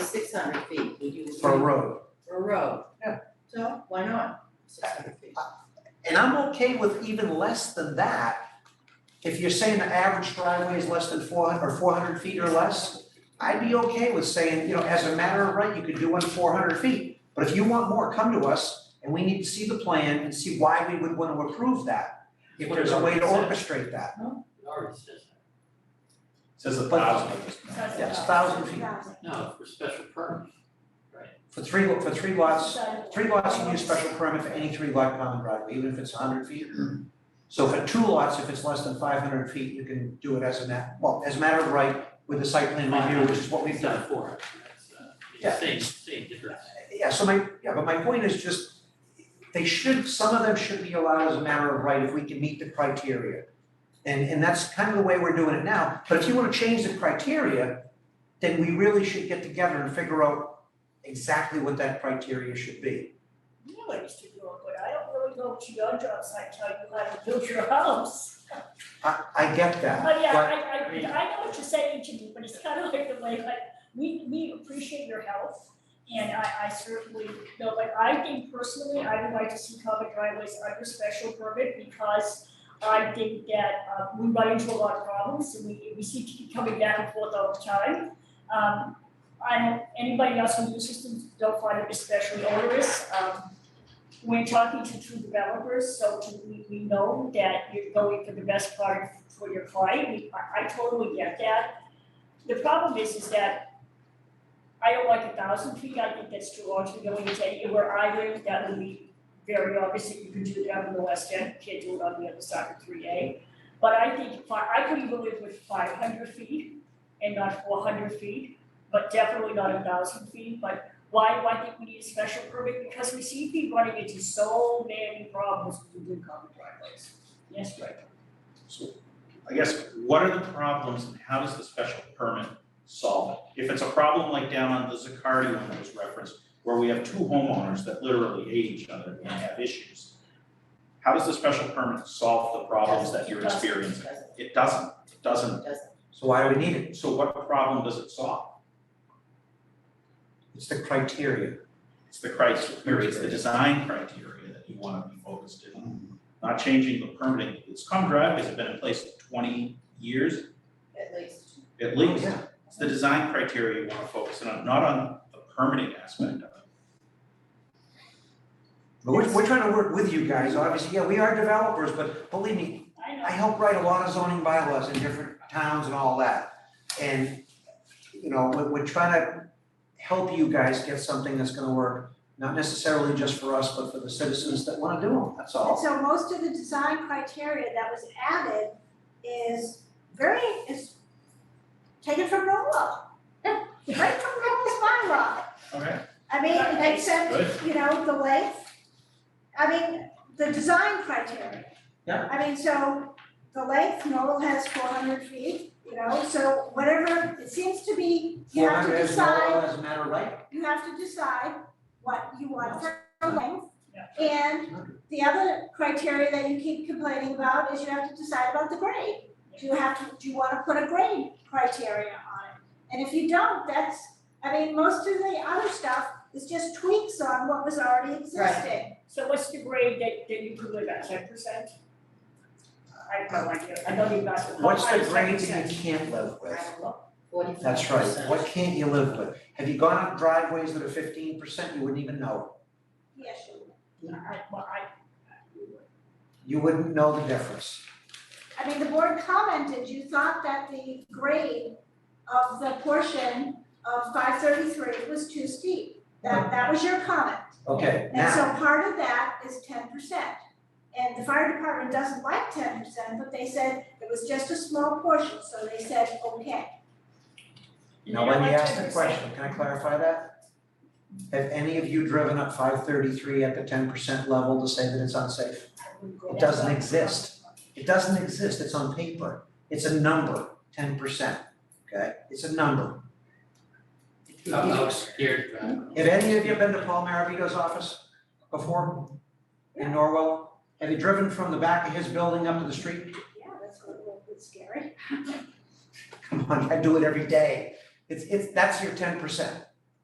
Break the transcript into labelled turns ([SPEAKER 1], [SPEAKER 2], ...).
[SPEAKER 1] hundred feet, would you?
[SPEAKER 2] for a road.
[SPEAKER 1] For a road.
[SPEAKER 2] Yeah.
[SPEAKER 1] So why not six hundred feet?
[SPEAKER 2] And I'm okay with even less than that. If you're saying the average driveway is less than four hundred, or four hundred feet or less, I'd be okay with saying, you know, as a matter of right, you could do one four hundred feet. But if you want more, come to us, and we need to see the plan and see why we would want to approve that. If there's a way to orchestrate that,
[SPEAKER 3] It already says that.
[SPEAKER 4] Says a
[SPEAKER 2] But-
[SPEAKER 4] thousand.
[SPEAKER 2] yes, thousand feet,
[SPEAKER 3] No, for special permits.
[SPEAKER 2] for three, lo- for three lots, three lots, you need a special permit for any three lot common driveway, even if it's hundred feet. So for two lots, if it's less than five hundred feet, you can do it as a ma, well, as a matter of right with the site plan review, which is what we've
[SPEAKER 3] It's
[SPEAKER 2] done.
[SPEAKER 3] not four, it's, uh, it's
[SPEAKER 2] Yeah.
[SPEAKER 3] same, same difference.
[SPEAKER 2] Yeah, so my, yeah, but my point is just, they should, some of them should be allowed as a matter of right if we can meet the criteria. And, and that's kind of the way we're doing it now, but if you wanna change the criteria, then we really should get together and figure out exactly what that criteria should be.
[SPEAKER 5] You know what used to do it, but I don't really go to your job site, tell you how to build your house.
[SPEAKER 2] I, I get that,
[SPEAKER 5] But yeah,
[SPEAKER 2] but,
[SPEAKER 5] I, I, I know what you're saying to me, but it's kind of like the way, like, we, we appreciate your help. And I, I certainly know, like, I think personally, I would like to see common driveways under special permit because I think that, uh, we run into a lot of problems and we, we seem to keep coming back and forth all the time. Um, I don't, anybody else who uses systems don't find it especially onerous, um, we're talking to two developers, so to- we, we know that you're going for the best part for your client, we, I, I totally get that. The problem is, is that I don't like a thousand feet, I think that's too large, we're going to take, where I live, that would be very obvious that you could do that on the west end, you can't do it on the other side of three A. But I think, fi- I could even live with five hundred feet and not four hundred feet, but definitely not a thousand feet, but why do I think we need a special permit? Because we see people running into so many problems with the common driveways. Yes, right.
[SPEAKER 4] I guess, what are the problems and how does the special permit solve it? If it's a problem like down on the Zaccardi one that was referenced, where we have two homeowners that literally hate each other and have issues, how does the special permit solve the problems that you're experiencing?
[SPEAKER 1] Doesn't,
[SPEAKER 4] It doesn't, it doesn't.
[SPEAKER 1] doesn't.
[SPEAKER 2] so why do we need it?
[SPEAKER 4] So what problem does it solve?
[SPEAKER 2] It's the criteria.
[SPEAKER 4] It's the criteria, it's the design criteria that you want to be focused in, not changing the permitting. It's common driveways have been in place twenty years
[SPEAKER 1] at least.
[SPEAKER 4] at least.
[SPEAKER 2] Oh, Yeah.
[SPEAKER 4] It's the design criteria you want to focus in on, not on the permitting aspect of it.
[SPEAKER 2] But we're, we're trying to work with you guys, obviously, yeah, we are developers, but believe me,
[SPEAKER 5] I know.
[SPEAKER 2] I help write a lot of zoning bylaws in different towns and all that. And, you know, we're, we're trying to help you guys get something that's gonna work, not necessarily just for us, but for the citizens that wanna do them, that's
[SPEAKER 6] And
[SPEAKER 2] all.
[SPEAKER 6] so most of the design criteria that was added is very, is taken from NOLA. Right from NOLA's bylaw.
[SPEAKER 4] Okay.
[SPEAKER 6] I mean,
[SPEAKER 4] Good.
[SPEAKER 6] except, you know, the length. I mean, the design criteria.
[SPEAKER 2] Yeah.
[SPEAKER 6] I mean, so the length, NOLA has four hundred feet, you know, so whatever, it seems to be, you have to
[SPEAKER 2] Well, as
[SPEAKER 6] decide
[SPEAKER 2] well as a matter of right,
[SPEAKER 6] you have to decide what you want for length.
[SPEAKER 5] Yeah.
[SPEAKER 6] And the other criteria that you keep complaining about is you have to decide about the grade. Do you have to, do you wanna put a grade criteria on it? And if you don't, that's, I mean, most of the other stuff is just tweaks on what was already existing.
[SPEAKER 5] So what's the grade that, that you could live at, ten percent? I have no idea, I don't even ask.
[SPEAKER 2] what's the
[SPEAKER 5] I was
[SPEAKER 2] grade
[SPEAKER 5] 10%.
[SPEAKER 2] that you can't live with?
[SPEAKER 1] I don't know, forty-five
[SPEAKER 2] That's right, what can't you live with? Have you gone up driveways that are fifteen percent, you wouldn't even know,
[SPEAKER 6] Yes, you-
[SPEAKER 5] I, well, I,
[SPEAKER 2] you wouldn't know the difference.
[SPEAKER 6] I mean, the board commented, you thought that the grade of the portion of five thirty-three was too steep. That, that was your comment.
[SPEAKER 2] Okay, now.
[SPEAKER 6] And so part of that is ten percent. And the fire department doesn't like ten percent, but they said it was just a small portion, so they said, okay.
[SPEAKER 5] you
[SPEAKER 2] Now,
[SPEAKER 5] know,
[SPEAKER 2] let me
[SPEAKER 5] like
[SPEAKER 2] ask the
[SPEAKER 5] 10%.
[SPEAKER 2] question, can I clarify that? Have any of you driven up five thirty-three at the ten percent level to say that it's unsafe?
[SPEAKER 5] I wouldn't go
[SPEAKER 2] It
[SPEAKER 5] that
[SPEAKER 2] doesn't
[SPEAKER 5] far.
[SPEAKER 2] exist. It doesn't exist, it's on paper, it's a number, ten percent, okay, it's a number.
[SPEAKER 3] I'm not scared, but.
[SPEAKER 2] Have any of you been to Paul Marabito's office before in Norwell? Have you driven from the back of his building up to the street?
[SPEAKER 6] Yeah, that's a little bit scary.
[SPEAKER 2] Come on, I do it every day. It's, it's, that's your ten percent.